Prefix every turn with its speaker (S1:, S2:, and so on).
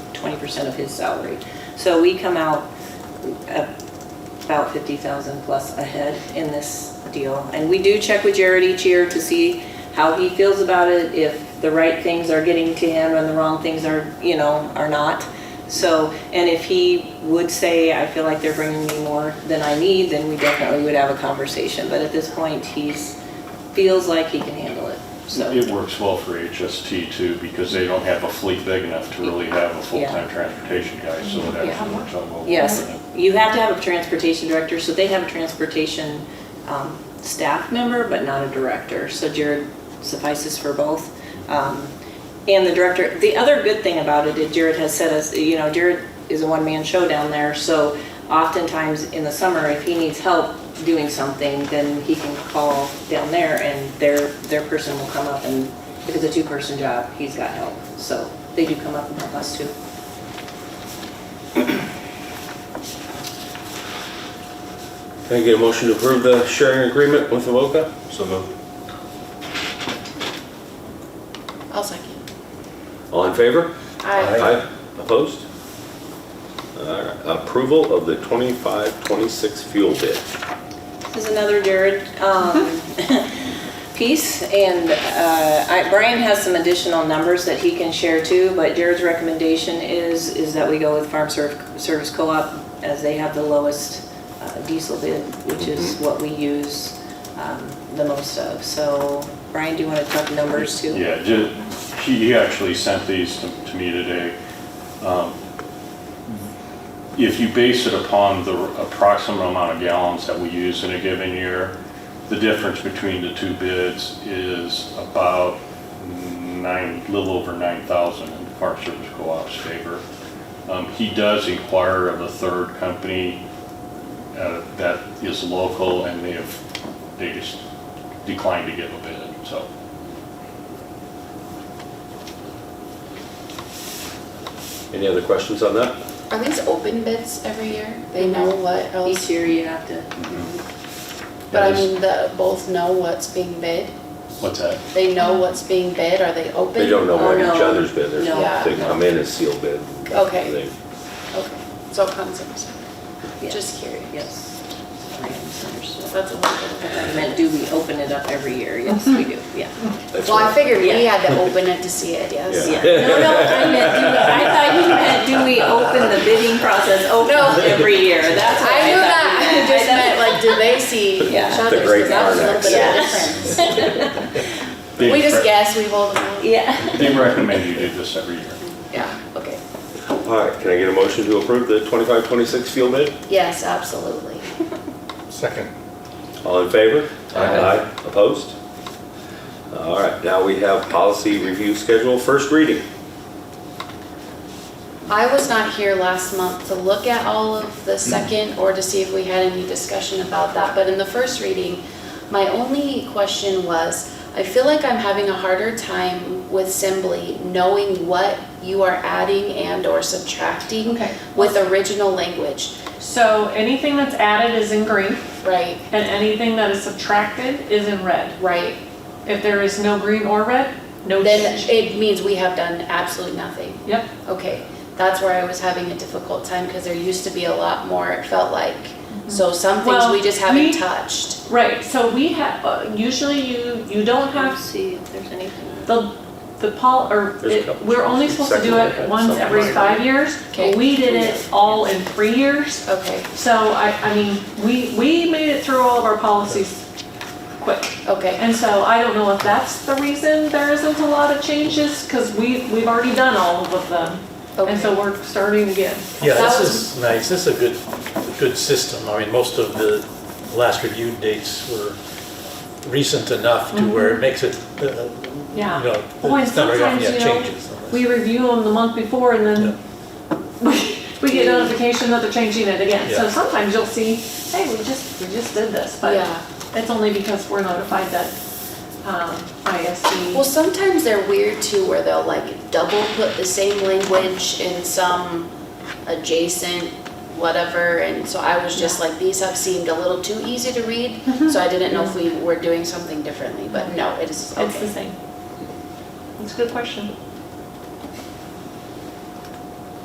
S1: percent of his salary. So we come out uh, about 50,000 plus ahead in this deal. And we do check with Jared each year to see how he feels about it, if the right things are getting to him and the wrong things are, you know, are not. So, and if he would say, I feel like they're bringing me more than I need, then we definitely would have a conversation. But at this point, he's, feels like he can handle it, so.
S2: It works well for HST too, because they don't have a fleet big enough to really have a full-time transportation guy, so it actually works out well.
S1: Yes,
S2: for them.
S1: you have to have a transportation director, so they have a transportation um, staff member, but not a director. So Jared suffices for both. Um, And the director, the other good thing about it is Jared has said, us, you know, Jared is a one-man show down there, so oftentimes in the summer, if he needs help doing something, then he can call down there and their, their person will come up and, if it's a two-person job, he's got help. So they do come up and help us too.
S3: Can I get a motion to approve the sharing agreement with Avoca?
S4: So moved.
S5: I'll second.
S3: All in favor?
S5: Aye.
S3: Opposed? Alright, Approval of the 25-26 fuel bid.
S1: This is another Jared um, piece, and uh, I- Brian has some additional numbers that he can share too, but Jared's recommendation is, is that we go with Farm Serv- Service Co-op as they have the lowest uh, diesel bid, which is what we use um, the most of. So Brian, do you want to talk numbers too?
S2: Yeah, ju- he he actually sent these to to me today. Um, If you base it upon the approximate amount of gallons that we use in a given year, the difference between the two bids is about nine, little over 9,000 in the Park Service Co-op's favor. Um, He does inquire of a third company uh, that is local, and they have, they just declined to give a bid, so.
S3: Any other questions on that?
S5: Are these open bids every year? They know what
S1: Each
S5: else,
S1: year you have to,
S5: but I mean, the, both know what's being bid?
S2: What's that?
S5: They know what's being bid, are they open?
S3: They don't know
S1: Oh,
S3: what each
S1: no.
S3: other's bid, they're,
S1: No.
S3: they come in as sealed bid.
S5: Okay.
S3: They-
S5: Okay, so it comes in separate.
S1: Yes.
S5: just curious.
S1: yes. Sorry, I misunderstood.
S5: That's a little bit
S1: I
S5: of a.
S1: meant, do we open it up every year? Yes, we do, yeah.
S3: that's
S5: Well, I
S3: what-
S5: figured we
S1: Yeah.
S5: had to open it to see it, yes.
S3: Yeah.
S1: Yeah. No, no, I meant, do we, I thought you meant, do we open the bidding process open
S5: No.
S1: every year?
S5: I
S1: That's what I
S5: knew
S1: thought.
S5: that, I
S1: you
S5: just meant like, do they see each
S1: Yeah. The
S5: other's,
S3: great
S5: because that's a little bit
S3: Arnex.
S5: of a difference. We just guess, we hold them. all.
S1: Yeah.
S2: They recommend you do this every year.
S5: Yeah, okay,
S3: Alright, can I get a motion to approve the 25-26 fuel bid?
S5: yes, absolutely.
S4: Second.
S3: All in favor?
S4: Aye.
S3: Opposed? Alright, now we have policy review schedule, first reading.
S5: I was not here last month to look at all of the second or to see if we had any discussion about that, but in the first reading, my only question was, I feel like I'm having a harder time with Assembly knowing what you are adding and or subtracting
S6: Okay.
S5: with original language,
S6: So anything that's added is in green
S5: right?
S6: and anything that is subtracted is in red.
S5: Right,
S6: If there is no green or red, no
S5: then
S6: change.
S5: it means we have done absolutely nothing.
S6: Yep,
S5: Okay, that's where I was having a difficult time because there used to be a lot more, it felt like. So some things
S6: Well,
S5: we just
S6: we-
S5: haven't touched.
S6: right, so we have, uh, usually you, you don't
S1: Let's
S6: have
S1: see if there's anything.
S6: the, the pol, or
S3: There's a
S6: it-
S3: couple
S6: we're only
S3: changes.
S6: supposed to do
S3: Second, I
S6: it
S3: had
S6: once
S3: something
S6: every
S3: like
S6: five years. but
S5: Okay.
S6: We did it all in three years.
S5: Okay,
S6: So I, I mean, we, we made it through all of our policies quick.
S5: okay,
S6: And so I don't know if that's the reason there isn't a lot of changes, because we, we've already done all of them. And so
S5: okay.
S6: we're starting again.
S7: Yeah,
S5: That
S7: this is nice, this is a good, a good system. I mean, most of the last reviewed dates were recent enough to where it makes it, uh, you
S6: Mm-hmm. Yeah.
S7: know,
S6: Oh, and
S7: it's not very often
S6: sometimes,
S7: you
S6: you
S7: have
S6: know,
S7: changes. unless-
S6: we review them the month before and then we get notification that they're changing it again. So
S7: Yeah.
S6: sometimes you'll see, hey, we just, we just did this, but
S5: Yeah,
S6: it's only because we're notified that um,
S5: well,
S6: ISD.
S5: sometimes they're weird too, where they'll like double put the same language in some adjacent whatever, and so I was just like, these have seemed a little too easy to read,
S6: Mm-hmm.
S5: so I didn't know if we were doing something differently, but no, it is,
S6: It's the
S5: okay.
S6: same. It's a good question.